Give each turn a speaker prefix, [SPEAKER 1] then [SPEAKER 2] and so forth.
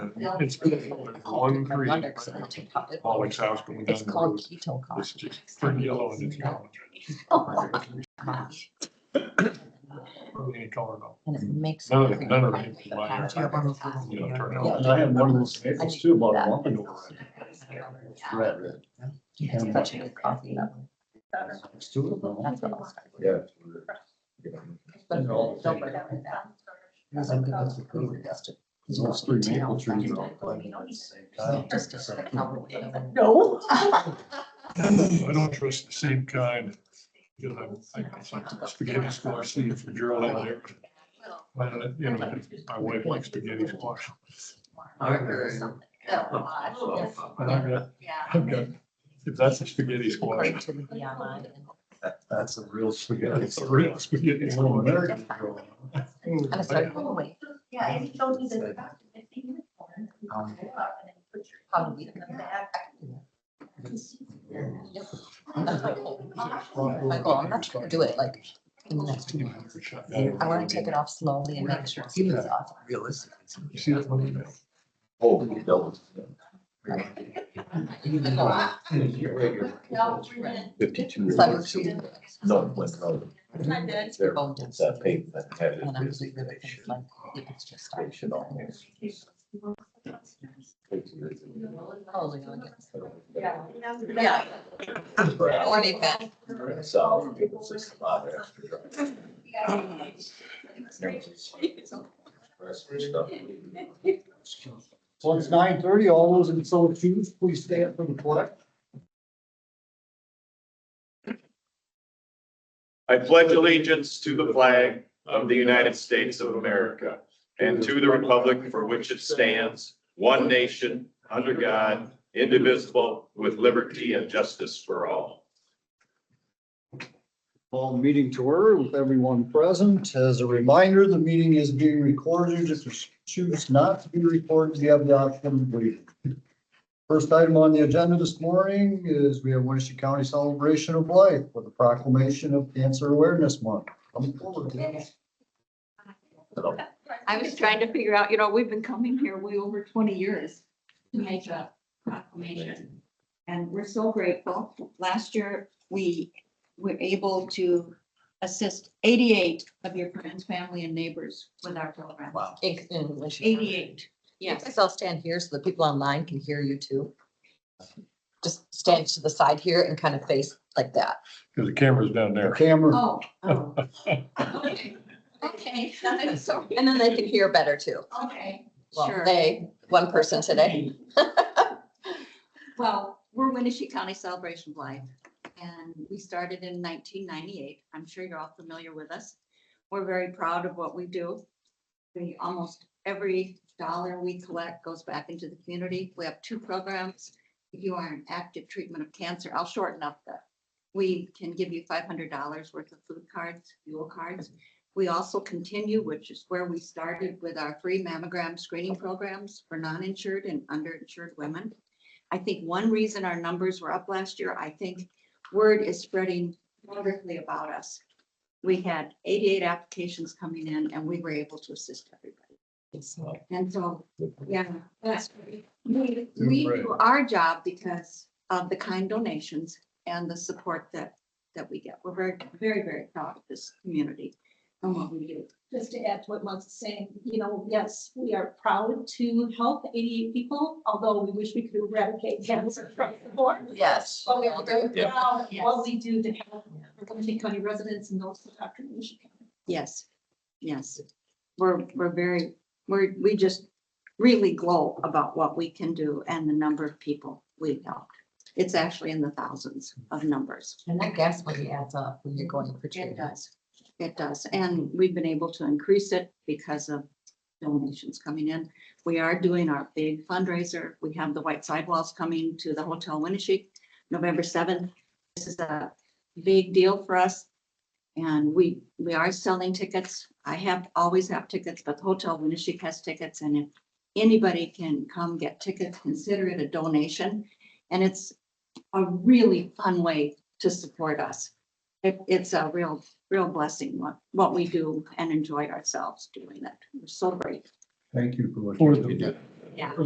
[SPEAKER 1] It's one three. Pollock's house going down.
[SPEAKER 2] It's
[SPEAKER 1] the
[SPEAKER 2] called
[SPEAKER 1] road.
[SPEAKER 2] keto
[SPEAKER 1] It's
[SPEAKER 2] coffee.
[SPEAKER 1] just pretty yellow and it's yellow.
[SPEAKER 2] Oh, gosh.
[SPEAKER 1] Any color though.
[SPEAKER 2] And it makes.
[SPEAKER 1] None of-
[SPEAKER 2] everything
[SPEAKER 1] none of
[SPEAKER 2] like
[SPEAKER 1] it is
[SPEAKER 2] the
[SPEAKER 1] mine.
[SPEAKER 2] patch.
[SPEAKER 1] Yeah, one You know, turn
[SPEAKER 2] Yeah.
[SPEAKER 1] out.
[SPEAKER 3] And I had one of those maples too, about a month ago.
[SPEAKER 2] Yeah.
[SPEAKER 3] Red, red.
[SPEAKER 2] Yeah, it's such a good coffee, that one.
[SPEAKER 3] It's two of them.
[SPEAKER 2] That's what I'll start.
[SPEAKER 3] Yeah.
[SPEAKER 2] But
[SPEAKER 3] And all
[SPEAKER 2] don't burn it with that. Because I'm gonna have to prove it, that's to-
[SPEAKER 3] Those three maple trees are all planted at the same time.
[SPEAKER 2] Just a couple of them.
[SPEAKER 4] No.
[SPEAKER 1] I don't trust the same kind. Because I'm, I it's like spaghetti squash, see if you're in there. But, you know, my wife likes spaghetti squash.
[SPEAKER 2] Oh,
[SPEAKER 1] And I've got, I've got, if that's a spaghetti squash,
[SPEAKER 2] According to the BMI and-
[SPEAKER 3] That's a real spaghetti.
[SPEAKER 1] that's a real spaghetti
[SPEAKER 3] It's an
[SPEAKER 1] squash.
[SPEAKER 3] American girl.
[SPEAKER 2] And I started going away,
[SPEAKER 4] Yeah, and he told me that about fifteen minutes.
[SPEAKER 3] Um,
[SPEAKER 2] how do we? That's my goal. My goal, I'm not trying to do it like in the next two months. I wanna take it off slowly and make sure it's off.
[SPEAKER 3] Realistic.
[SPEAKER 1] You see that one email?
[SPEAKER 3] Oh, you don't.
[SPEAKER 2] The goal.
[SPEAKER 4] No, three minutes.
[SPEAKER 3] Fifty-two.
[SPEAKER 2] So I was treated like-
[SPEAKER 3] No, but no,
[SPEAKER 4] I did.
[SPEAKER 3] they're,
[SPEAKER 2] Bone
[SPEAKER 3] it's that
[SPEAKER 2] density.
[SPEAKER 3] pavement that
[SPEAKER 2] And I'm
[SPEAKER 3] it is,
[SPEAKER 2] doing other
[SPEAKER 3] they
[SPEAKER 2] things
[SPEAKER 3] should,
[SPEAKER 2] like the extra stuff.
[SPEAKER 3] they should almost. take it.
[SPEAKER 2] Probably gonna get-
[SPEAKER 4] Yeah.
[SPEAKER 2] Yeah. Or they bet.
[SPEAKER 3] So, it's just a lot of extra drive.
[SPEAKER 5] So it's nine thirty, all those in so choose, please stand for the pledge.
[SPEAKER 6] I pledge allegiance to the flag of the United States of America and to the republic for which it stands, one nation, under God, indivisible, with liberty and justice for all.
[SPEAKER 5] Call the meeting to order with everyone present. As a reminder, the meeting is being recorded. If you choose not to be recorded, you have the option of waiting. First item on the agenda this morning is we have Winnebago County Celebration of Life with a proclamation of Cancer Awareness Month. Come forward, Dennis.
[SPEAKER 7] I was trying to figure out, you know, we've been coming here way over twenty years to make a proclamation. And we're so grateful. Last year, we were able to assist eighty-eight of your friends, family and neighbors with our program.
[SPEAKER 3] Wow.
[SPEAKER 2] In- in Winchester.
[SPEAKER 7] Eighty-eight,
[SPEAKER 2] You
[SPEAKER 7] yes.
[SPEAKER 2] guys all stand here so the people online can hear you too. Just stand to the side here and kind of face like that.
[SPEAKER 1] Cause the camera's down
[SPEAKER 5] The
[SPEAKER 1] there.
[SPEAKER 5] camera,
[SPEAKER 7] Oh. oh. Okay, Okay. I'm sorry.
[SPEAKER 2] And then they can hear better too.
[SPEAKER 7] Okay,
[SPEAKER 2] Well,
[SPEAKER 7] sure.
[SPEAKER 2] they, one person today.
[SPEAKER 7] Well, we're Winnebago County Celebration of Life, and we started in nineteen ninety-eight. I'm sure you're all familiar with us. We're very proud of what we do. We, almost every dollar we collect goes back into the community. We have two programs. If you are in active treatment of cancer, I'll shorten up the, we can give you five hundred dollars worth of food cards, fuel cards. We also continue, which is where we started with our free mammogram screening programs for non-insured and underinsured women. I think one reason our numbers were up last year, I think word is spreading wonderfully about us. We had eighty-eight applications coming in and we were able to assist everybody. And so, yeah, that's, we, we do our job because of the kind donations and the support that, that we get. We're very, very, very proud of this community and what we do.
[SPEAKER 4] Just to add to what Muggs is saying, you know, yes, we are proud to help eighty-eight people, although we wish we could eradicate cancer from the board.
[SPEAKER 2] Yes.
[SPEAKER 4] But we are very proud of what
[SPEAKER 7] Yes.
[SPEAKER 4] we do to help Lincoln County residents and those who are in Michigan.
[SPEAKER 7] Yes, yes. We're, we're very, we're, we just really glow about what we can do and the number of people we've helped. It's actually in the thousands of numbers.
[SPEAKER 2] And that gas money adds up when you're going for
[SPEAKER 7] It
[SPEAKER 2] treatment.
[SPEAKER 7] does. It does. And we've been able to increase it because of donations coming in. We are doing our big fundraiser. We have the white sidewalls coming to the Hotel Winnebago November seventh. This is a big deal for us. And we, we are selling tickets. I have, always have tickets, but the Hotel Winnebago has tickets and if anybody can come get tickets, consider it a donation. And it's a really fun way to support us. It, it's a real, real blessing what, what we do and enjoy ourselves doing it. We're so grateful.
[SPEAKER 3] Thank you for what.
[SPEAKER 1] For
[SPEAKER 3] you
[SPEAKER 1] the-
[SPEAKER 3] did.
[SPEAKER 7] Yeah.